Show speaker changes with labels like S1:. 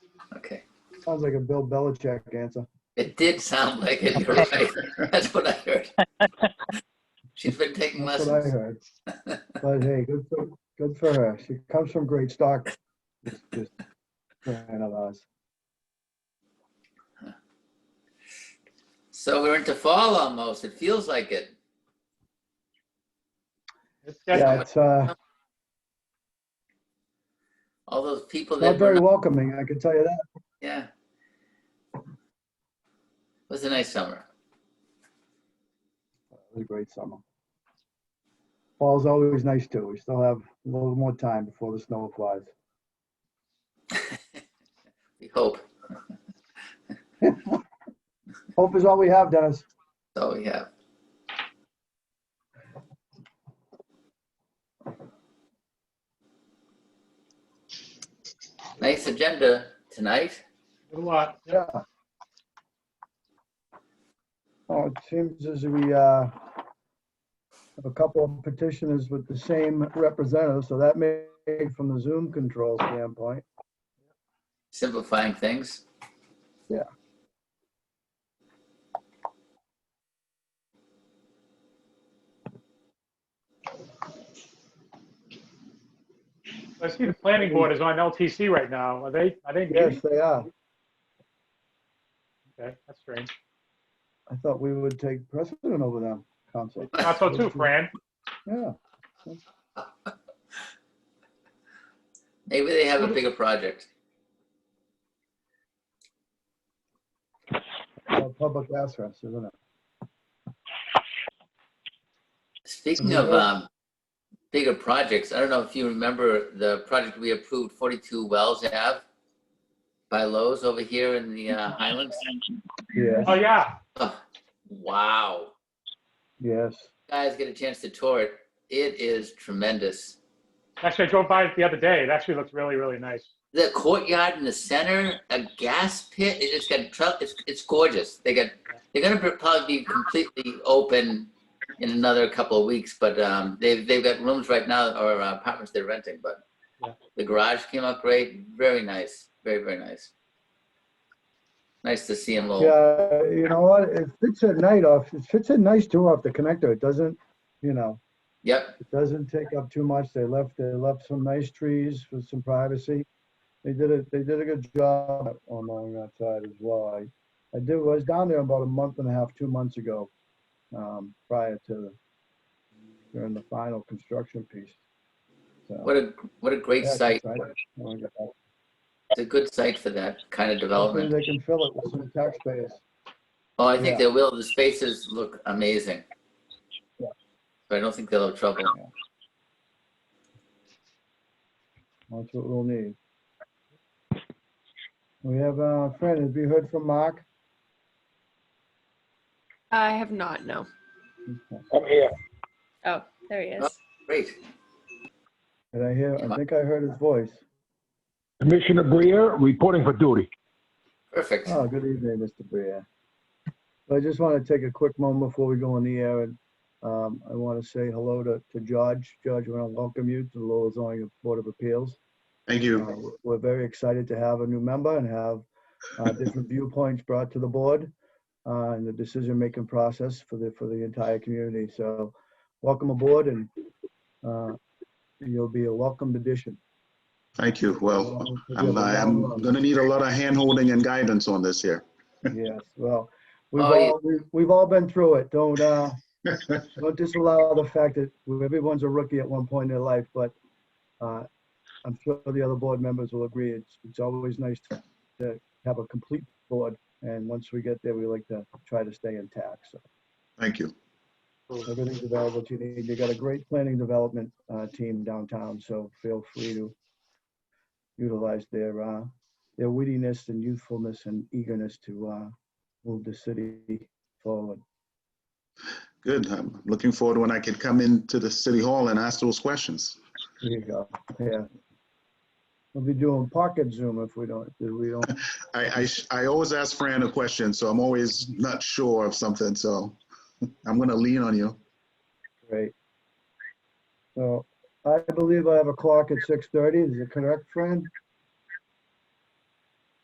S1: Sounds like a Bill Belichick answer.
S2: It did sound like it. You're right. That's what I heard. She's been taking
S1: That's what I
S2: lessons.
S1: heard. But hey, good for, good for her. She comes from great stock. It's just kind of us.
S2: So we're into fall almost. It feels like it.
S3: It's
S1: Yeah,
S3: definitely,
S1: it's uh,
S2: All those people that
S1: not
S2: were,
S1: very
S2: not-
S1: welcoming, I can tell you that.
S2: yeah. It was a nice summer.
S1: It was a great summer. Fall's always nice too. We still have a little more time before the snow flies.
S2: We hope.
S1: Hope is all we have, Dennis.
S2: That's all we have. Nice agenda tonight.
S3: a lot.
S1: Yeah. Oh, it seems as we, uh, have a couple of petitioners with the same representative, so that may, from the Zoom control standpoint.
S2: Simplifying things.
S3: I see the planning board is on LTC right now. Are they, are they
S1: Yes,
S3: meeting?
S1: they are.
S3: Okay, that's strange.
S1: I thought we would take precedent over them, council.
S3: Not so too, Fran.
S1: Yeah,
S2: Maybe they have a bigger project.
S1: uh, public access, isn't it?
S2: Speaking of um, bigger projects, I don't know if you remember the project we approved, 42 Wells Ave by Lowe's over here in the uh, Highlands.
S1: Yes,
S3: Oh, yeah.
S2: Oh, Wow.
S1: yes.
S2: Guys, get a chance to tour it. It is tremendous.
S3: Actually, I drove by it the other day. It actually looks really, really nice.
S2: The courtyard in the center, a gas pit. it- It's got tr- it's it's gorgeous. They got they're gonna pr- probably be completely open in another couple of weeks, but um, they've they've got rooms right now or uh, apartments they're renting. But
S3: Yeah.
S2: the garage came out great. Very nice. Very very nice. Nice to see them all.
S1: Yeah, you know what, it fits at night off, it fits at nice too off the connector, it doesn't, you know,
S2: Yep.
S1: it doesn't take up too much, they left, they left some nice trees with some privacy. They did a, they did a good job on along that side as well, I, I did, I was down there about a month and a half, two months ago, um, prior to, during the final construction piece. So,
S2: What a what a great
S1: yeah,
S2: site.
S1: I wanna get back.
S2: It's a good site for that kind of
S1: Hopefully
S2: development.
S1: they can fill it with some taxpayers.
S2: Oh, I think
S1: Yeah.
S2: they will. The spaces look amazing.
S1: Yeah.
S2: So I don't think they'll have trouble.
S1: That's what we'll need. We have a friend, have you heard from Mark?
S4: I have not, no.
S5: I'm here.
S4: Oh, there he is.
S2: Great.
S1: Did I hear, I think I heard his voice.
S5: Commissioner Brier, reporting for duty.
S2: Perfect.
S1: Oh, good evening, Mr. Brier. I just want to take a quick moment before we go on the air and um, I want to say hello to, to Judge. Judge, I want to welcome you to the Lowell zoning board of appeals.
S6: Thank
S1: Uh,
S6: you.
S1: We're very excited to have a new member and have uh, different viewpoints brought to the board uh, in the decision-making process for the, for the entire community. So welcome aboard and uh, you'll be a welcomed addition.
S6: Thank you. Well,
S1: um,
S6: I'm, I'm going to need a lot of handholding and guidance on this here.
S1: Yes, well, we've
S2: Oh, yeah.
S1: all, we've- we've all been through it. Don't, uh, don't disallow the fact that everyone's a rookie at one point in their life, but uh, I'm sure the other board members will agree. It's, it's always nice to, to have a complete board. And once we get there, we like to try to stay intact. So
S6: Thank you.
S1: everything's available to you. need. You got a great planning development uh, team downtown, so feel free to utilize their, uh, their wittiness and youthfulness and eagerness to uh, move the city forward.
S6: Good. I'm looking forward when I can come into the city hall and ask those questions.
S1: There you go, yeah. We'll be doing pocket Zoom if we don't, if we don't,
S6: I, I, sh- I always ask Fran a question, so I'm always not sure of something, so I'm going to lean on you.
S1: great. So I believe I have a clock at six thirty, is it correct, friend?